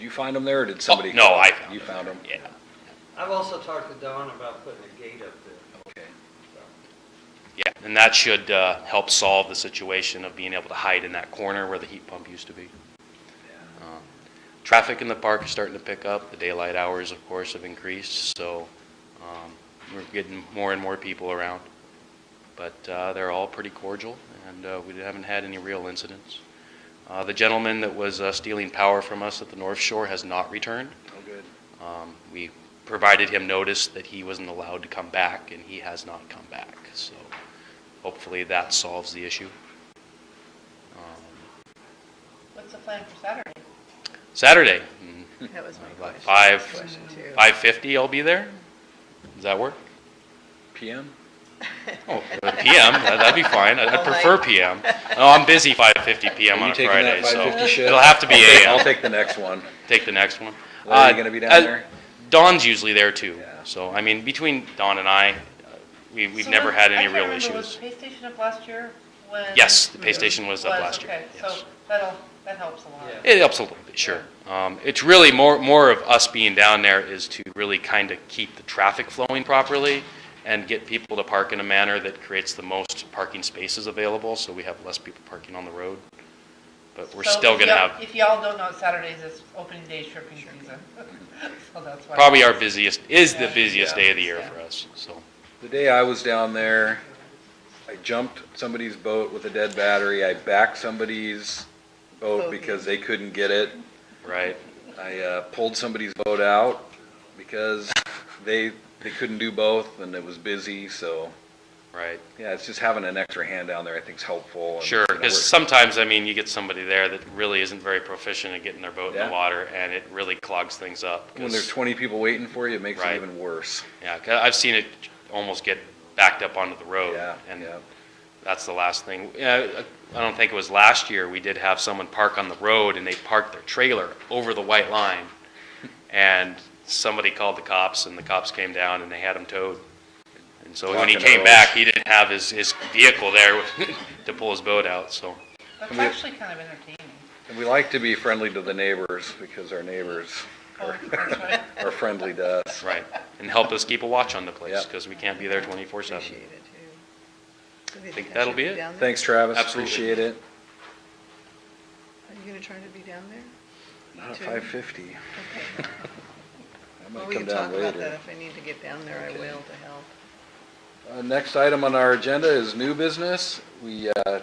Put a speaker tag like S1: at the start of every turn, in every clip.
S1: you find them there, or did somebody?
S2: Oh, no, I found
S1: You
S2: them.
S1: found them?
S2: Yeah.
S3: I've also talked to Don about putting a gate up there.
S1: Okay.
S2: Yeah, and that should uh, help solve the situation of being able to hide in that corner where the heat pump used to be. Uh, Traffic in the park is starting to pick up. The daylight hours, of course, have increased, so um, we're getting more and more people around. But uh, they're all pretty cordial, and uh, we haven't had any real incidents. Uh, The gentleman that was uh, stealing power from us at the North Shore has not returned.
S1: Oh, good.
S2: Um, We provided him notice that he wasn't allowed to come back, and he has not come back. So hopefully that solves the issue. Um,
S4: What's the plan for Saturday?
S2: Saturday, mm,
S4: That was my
S2: Like
S4: question.
S2: five-
S4: Question two.
S2: 5:50, I'll be there. Does that work?
S1: PM?
S2: Oh, uh, PM, that- that'd be fine. I I
S4: All night.
S2: prefer PM. No, I'm busy 5:50 PM
S1: Are
S2: on
S1: you
S2: a
S1: taking
S2: Friday,
S1: that
S2: so
S1: 550 shift?
S2: it'll have to be
S1: I'll take-
S2: AM.
S1: I'll take the next one.
S2: Take the next one.
S1: Larry,
S2: Uh,
S1: you gonna be down
S2: uh,
S1: there?
S2: Dawn's usually there too.
S1: Yeah.
S2: So, I mean, between Dawn and I, uh, we- we've
S4: So
S2: never
S4: was-
S2: had any
S4: I can't
S2: real
S4: remember,
S2: issues.
S4: Was the pay station up last year when?
S2: Yes, the pay station was up
S4: Was,
S2: last year,
S4: okay,
S2: yes.
S4: So that'll, that helps a lot.
S3: Yeah.
S2: It helps a little bit, sure. Um, It's really more, more of us being down there is to really kind of keep the traffic flowing properly and get people to park in a manner that creates the most parking spaces available, so we have less people parking on the road. But we're
S4: So
S2: still
S4: if
S2: gonna
S4: y'all-
S2: have,
S4: If y'all don't know, Saturdays is opening day shipping season. So that's why.
S2: probably our busiest, is the busiest
S1: Yeah.
S2: day of the year
S4: Yeah.
S2: for us, so.
S1: The day I was down there, I jumped somebody's boat with a dead battery. I backed somebody's boat
S4: Boat.
S1: because they couldn't get it.
S2: Right.
S1: I uh, pulled somebody's boat out because they, they couldn't do both and it was busy, so,
S2: Right.
S1: yeah, it's just having an extra hand down there I think is helpful. and,
S2: Sure,
S1: you know,
S2: because
S1: we're-
S2: sometimes, I mean, you get somebody there that really isn't very proficient at getting their boat in
S1: Yeah.
S2: the water, and it really clogs things up. 'cause-
S1: When there's twenty people waiting for you, it makes it
S2: Right.
S1: even worse.
S2: Yeah, 'cause I've seen it almost get backed up onto the road.
S1: Yeah,
S2: Oh, And
S1: yeah.
S2: that's the last thing. Yeah, I don't think it was last year, we did have someone park on the road and they parked their trailer over the white line. And somebody called the cops and the cops came down and they had him towed. And so when he
S1: Blocking the
S2: came
S1: roads.
S2: back, he didn't have his, his vehicle there to pull his boat out, so.
S4: That's
S1: I mean-
S4: actually kind of entertaining.
S1: And we like to be friendly to the neighbors because our neighbors
S4: Oh, that's right.
S1: are friendly to us.
S2: Right. And helped us keep a watch on the place
S1: Yeah.
S2: because we can't be there twenty-four seven.
S5: Appreciate it, too.
S2: I think that'll be it.
S1: Thanks, Travis,
S2: Absolutely.
S1: appreciate it.
S5: Are you gonna try to be down there?
S1: Not at
S5: Two.
S1: five fifty, I
S5: Okay. Well,
S1: might
S5: we
S1: come
S5: can talk
S1: down
S5: about that.
S1: later.
S5: If I need to get down there, I
S1: Okay.
S5: will to help.
S1: Uh, next item on our agenda is new business, we, uh,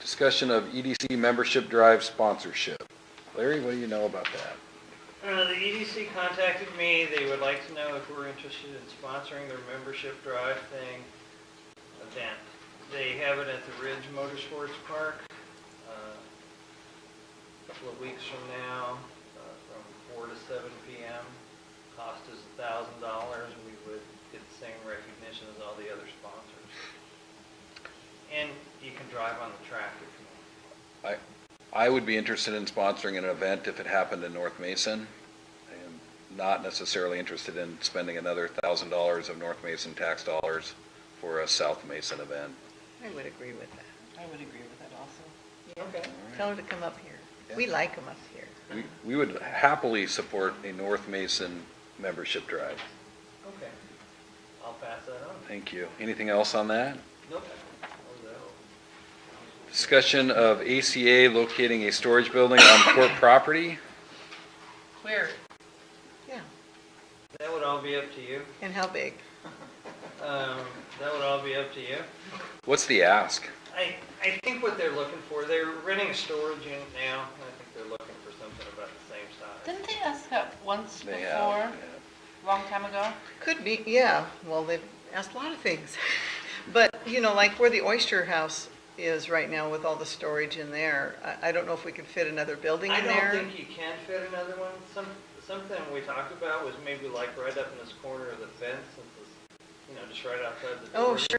S1: discussion of EDC membership drive sponsorship. Larry, what do you know about that?
S3: Uh, the EDC contacted me, they would like to know if we're interested in sponsoring their membership drive thing event. They have it at the Ridge Motorsports Park, uh, a couple of weeks from now, uh, from four to seven PM. Cost is a thousand dollars, we would get the same recognition as all the other sponsors. And you can drive on the track if you want.
S1: I, I would be interested in sponsoring an event if it happened in North Mason. I am not necessarily interested in spending another thousand dollars of North Mason tax dollars for a South Mason event.
S5: I would agree with that.
S4: I would agree with that also.
S5: Okay. Tell her to come up here. We
S1: Yeah.
S5: like them up here.
S1: We, we would happily support a North Mason membership drive.
S3: Okay. I'll pass that on.
S1: Thank you. Anything else on that?
S3: Nope. Oh, no.
S1: Discussion of ACA locating a storage building on court property.
S4: Weird.
S5: Yeah.
S3: That would all be up to you.
S5: And how big?
S3: Um, that would all be up to you.
S1: What's the ask?
S3: I, I think what they're looking for, they're renting a storage unit now, and I think they're looking for something about the same size.
S4: Didn't they ask that once
S1: They have-
S4: before, long time ago?
S5: Could be, yeah. Well, they've asked a lot of things. But, you know, like where the Oyster House is right now with all the storage in there, I, I don't know if we could fit another building
S3: I
S5: in
S3: don't
S5: there.
S3: think you can fit another one. Some, something we talked about was maybe like right up in this corner of the fence, since it's, you know, just right outside the door.
S5: Oh, sure.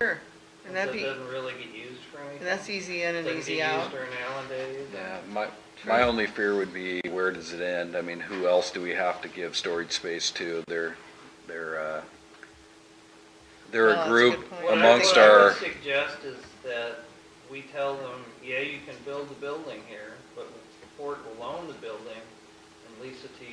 S3: Since
S5: And that'd
S3: It
S5: be, and
S3: doesn't really get used for anything.
S5: that's easy in and easy
S3: Doesn't
S5: out.
S3: get used during Allen days.
S1: Yeah, my, my only fear would be where does it end? I mean, who else do we have to give storage space to? They're, they're, uh, they're
S5: Oh, that's
S1: a
S5: a
S1: group
S5: good point.
S3: What I-
S1: amongst
S3: What I
S1: our,
S3: would suggest is that we tell them, yeah, you can build the building here, but Fort will own the building and lease it to